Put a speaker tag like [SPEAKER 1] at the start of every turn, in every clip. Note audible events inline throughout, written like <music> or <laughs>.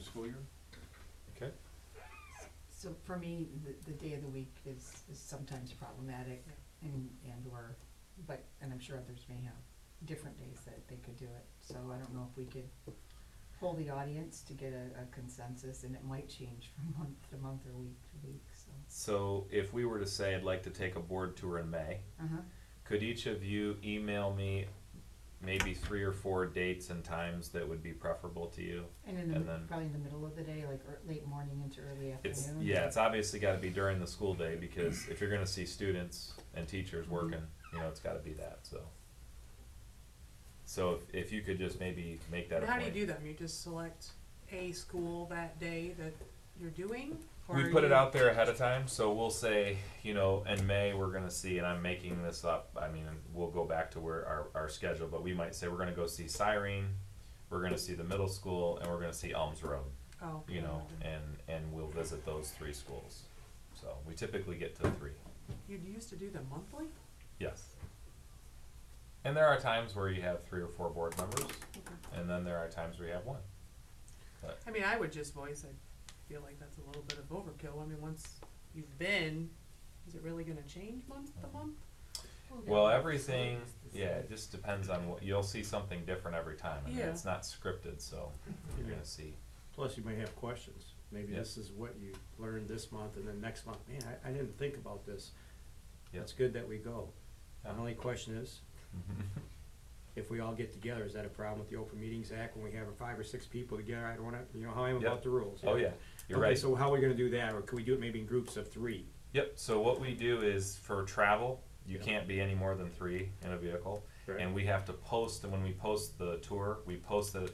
[SPEAKER 1] school year.
[SPEAKER 2] Okay,
[SPEAKER 3] So for me, the, the day of the week is, is sometimes problematic and, and or, but, and I'm sure others may have different days that they could do it. So I don't know if we could poll the audience to get a, a consensus and it might change from <laughs> month to month or week to week, so.
[SPEAKER 2] so if we were to say I'd like to take a board tour in May,
[SPEAKER 3] Uh-huh,
[SPEAKER 2] could each of you email me maybe three or four dates and times that would be preferable to you?
[SPEAKER 3] and in the,
[SPEAKER 2] And
[SPEAKER 3] mid-
[SPEAKER 2] then-
[SPEAKER 3] probably in the middle of the day, like ear- late morning into early
[SPEAKER 2] It's,
[SPEAKER 3] afternoon.
[SPEAKER 2] yeah, it's obviously gotta be during the school day, because if you're gonna see students and teachers
[SPEAKER 4] Mm-hmm.
[SPEAKER 2] working, you know, it's gotta be that, so. So if, if you could just maybe make that a
[SPEAKER 4] And how do you
[SPEAKER 2] point.
[SPEAKER 4] do them? You just select a school that day that you're doing? or
[SPEAKER 2] We put it
[SPEAKER 4] you-
[SPEAKER 2] out there ahead of time, so we'll say, you know, in May, we're gonna see, and I'm making this up, I mean, we'll go back to where our, our schedule, but we might say we're gonna go see Siren, we're gonna see the middle school, and we're gonna see Elms Road.
[SPEAKER 4] Oh.
[SPEAKER 2] you know, and, and we'll visit those three schools. So we typically get to three,
[SPEAKER 4] You used to do them monthly?
[SPEAKER 2] yes. And there are times where you have three or four board members, and then there are times where you have one.
[SPEAKER 4] I mean, I would just voice, I feel like that's a little bit of overkill. I mean, once you've been, is it really gonna change month to month?
[SPEAKER 2] Well, everything, yeah, it just depends on what, you'll see something different every time, and
[SPEAKER 4] Yeah.
[SPEAKER 2] it's not scripted, so you're gonna see.
[SPEAKER 5] Plus, you may have questions. Maybe
[SPEAKER 2] Yeah.
[SPEAKER 5] this is what you learned this month, and then next month, man, I, I didn't think about this.
[SPEAKER 2] Yeah.
[SPEAKER 5] It's good that we go. My
[SPEAKER 2] Yeah.
[SPEAKER 5] only
[SPEAKER 2] <laughs>
[SPEAKER 5] question is, if we all get together, is that a problem with the Open Meetings Act when we have five or six people together? I don't wanna, you know how I am
[SPEAKER 2] Yeah.
[SPEAKER 5] about the rules.
[SPEAKER 2] Oh, yeah, you're
[SPEAKER 5] Okay,
[SPEAKER 2] right.
[SPEAKER 5] so how are we gonna do that, or could we do it maybe in groups of three?
[SPEAKER 2] Yep, so what we do is for travel, you
[SPEAKER 5] Yeah.
[SPEAKER 2] can't be any more than three in a vehicle.
[SPEAKER 5] Right.
[SPEAKER 2] And we have to post, and when we post the tour, we post the,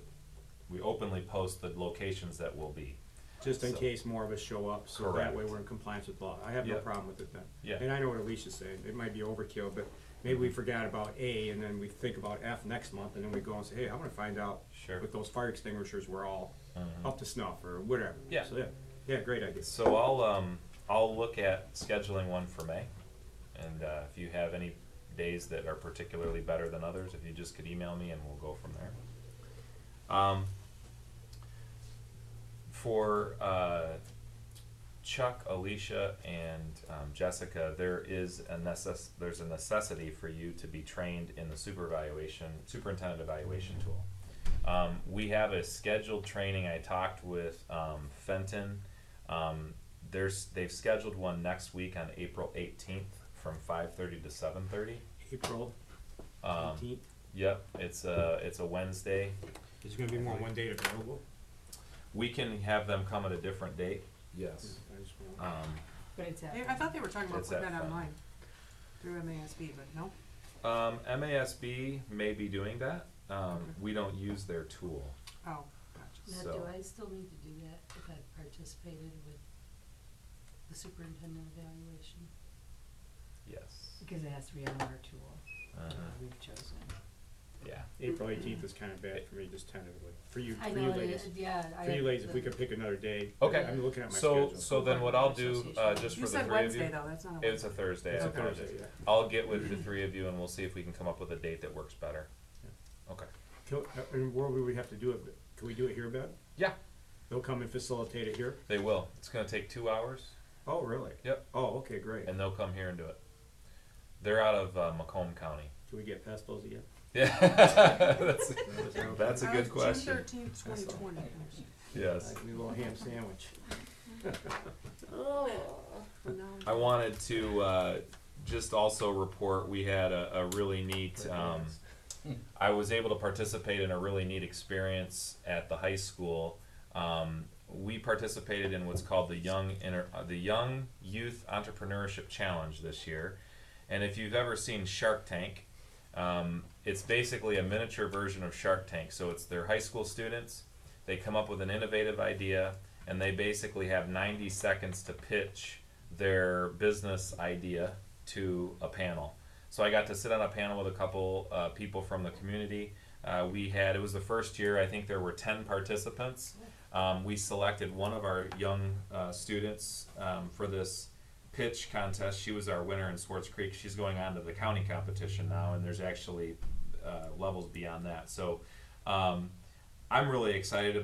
[SPEAKER 2] we openly post the locations that will be.
[SPEAKER 5] Just in
[SPEAKER 2] So-
[SPEAKER 5] case more of us show up, so that way
[SPEAKER 2] Correct.
[SPEAKER 5] we're in compliance with law. I have no
[SPEAKER 2] Yeah.
[SPEAKER 5] problem with it then.
[SPEAKER 2] Yeah. Mm-hmm.
[SPEAKER 5] And I know what Alicia's saying, it might be overkill, but maybe we forgot about A, and then we think about F next month, and then we go and say, hey, I wanna find out
[SPEAKER 2] Sure. Mm-hmm.
[SPEAKER 5] with those fire extinguishers were all up to snuff or whatever.
[SPEAKER 2] Yeah.
[SPEAKER 5] So, yeah, yeah, great idea.
[SPEAKER 2] So I'll, um, I'll look at scheduling one for May. And, uh, if you have any days that are particularly better than others, if you just could email me and we'll go from there. Um, for, uh, Chuck, Alicia, and um, Jessica, there is a necess- there's a necessity for you to be trained in the super evaluation, superintendent evaluation tool. Um, we have a scheduled training. I talked with um, Fenton. Um, there's they've scheduled one next week on April 18th from 5:30 to 7:30.
[SPEAKER 5] April
[SPEAKER 2] Um,
[SPEAKER 5] eighteenth,
[SPEAKER 2] Yep, it's a it's a Wednesday.
[SPEAKER 5] is there gonna be more than one date available?
[SPEAKER 2] We can have them come at a different date. Yes.
[SPEAKER 5] Mm-hmm. I just wanna-
[SPEAKER 2] Um,
[SPEAKER 3] But it's at.
[SPEAKER 4] They- I thought they were talking about
[SPEAKER 2] It's
[SPEAKER 4] putting
[SPEAKER 2] that
[SPEAKER 4] that
[SPEAKER 2] fun.
[SPEAKER 4] online through MASB, but no.
[SPEAKER 2] Um, MASB may be doing that. Um,
[SPEAKER 4] Okay.
[SPEAKER 2] we don't use their tool.
[SPEAKER 4] Oh, gotcha.
[SPEAKER 6] Now, do
[SPEAKER 2] So-
[SPEAKER 6] I still need to do that if I participated with the superintendent evaluation?
[SPEAKER 2] Yes.
[SPEAKER 3] Because it has to be on our tool,
[SPEAKER 2] Uh,
[SPEAKER 3] that we've chosen.
[SPEAKER 2] yeah.
[SPEAKER 5] April eighteenth is kinda bad for me, just tentatively, for you,
[SPEAKER 6] I
[SPEAKER 5] for you
[SPEAKER 6] know, it
[SPEAKER 5] ladies.
[SPEAKER 6] is- yeah, I.
[SPEAKER 5] For you ladies, if we
[SPEAKER 6] the-
[SPEAKER 5] could pick another day.
[SPEAKER 2] Okay.
[SPEAKER 5] I'm looking at my
[SPEAKER 2] So
[SPEAKER 5] schedule.
[SPEAKER 2] so then what I'll do uh, just
[SPEAKER 4] You
[SPEAKER 2] for the
[SPEAKER 4] said
[SPEAKER 2] three of
[SPEAKER 4] Wednesday
[SPEAKER 2] you.
[SPEAKER 4] though, that's not a
[SPEAKER 2] It's
[SPEAKER 4] Wednesday.
[SPEAKER 2] a Thursday.
[SPEAKER 5] It's
[SPEAKER 2] I
[SPEAKER 5] a
[SPEAKER 2] apologize.
[SPEAKER 5] Thursday, yeah.
[SPEAKER 2] I'll get with the three of you and we'll see if we can come up with a date that works better. Okay.
[SPEAKER 5] Can- uh, And where would we have to do it? Can we do it here, Ben?
[SPEAKER 2] Yeah,
[SPEAKER 5] They'll come and facilitate it here?
[SPEAKER 2] they will. It's gonna take two hours
[SPEAKER 5] Oh, really?
[SPEAKER 2] Yep.
[SPEAKER 5] Oh, okay, great.
[SPEAKER 2] and they'll come here and do it. They're out of uh, Macomb County. <laughs>
[SPEAKER 5] Can we get past those again?
[SPEAKER 2] Yeah. that's, <laughs> that's a
[SPEAKER 4] Uh,
[SPEAKER 2] good
[SPEAKER 4] June
[SPEAKER 2] question.
[SPEAKER 4] thirteenth, twenty twenty.
[SPEAKER 2] Yes.
[SPEAKER 5] Like a little ham sandwich.
[SPEAKER 2] I wanted to uh, just also report we had a, a really neat. Um, I was able to participate in a really neat experience at the high school. Um, we participated in what's called the Young Inter- uh, the Young Youth Entrepreneurship Challenge this year, and if you've ever seen Shark Tank, um, it's basically a miniature version of Shark Tank. So it's their high school students. They come up with an innovative idea, and they basically have 90 seconds to pitch their business idea to a panel. So I got to sit on a panel with a couple uh, people from the community. Uh, we had it was the first year. I think there were 10 participants. Um, we selected one of our young uh, students um, for this pitch contest. She was our winner in Swartz Creek. She's going on to the county competition now, and there's actually uh, levels beyond that. So um, I'm really excited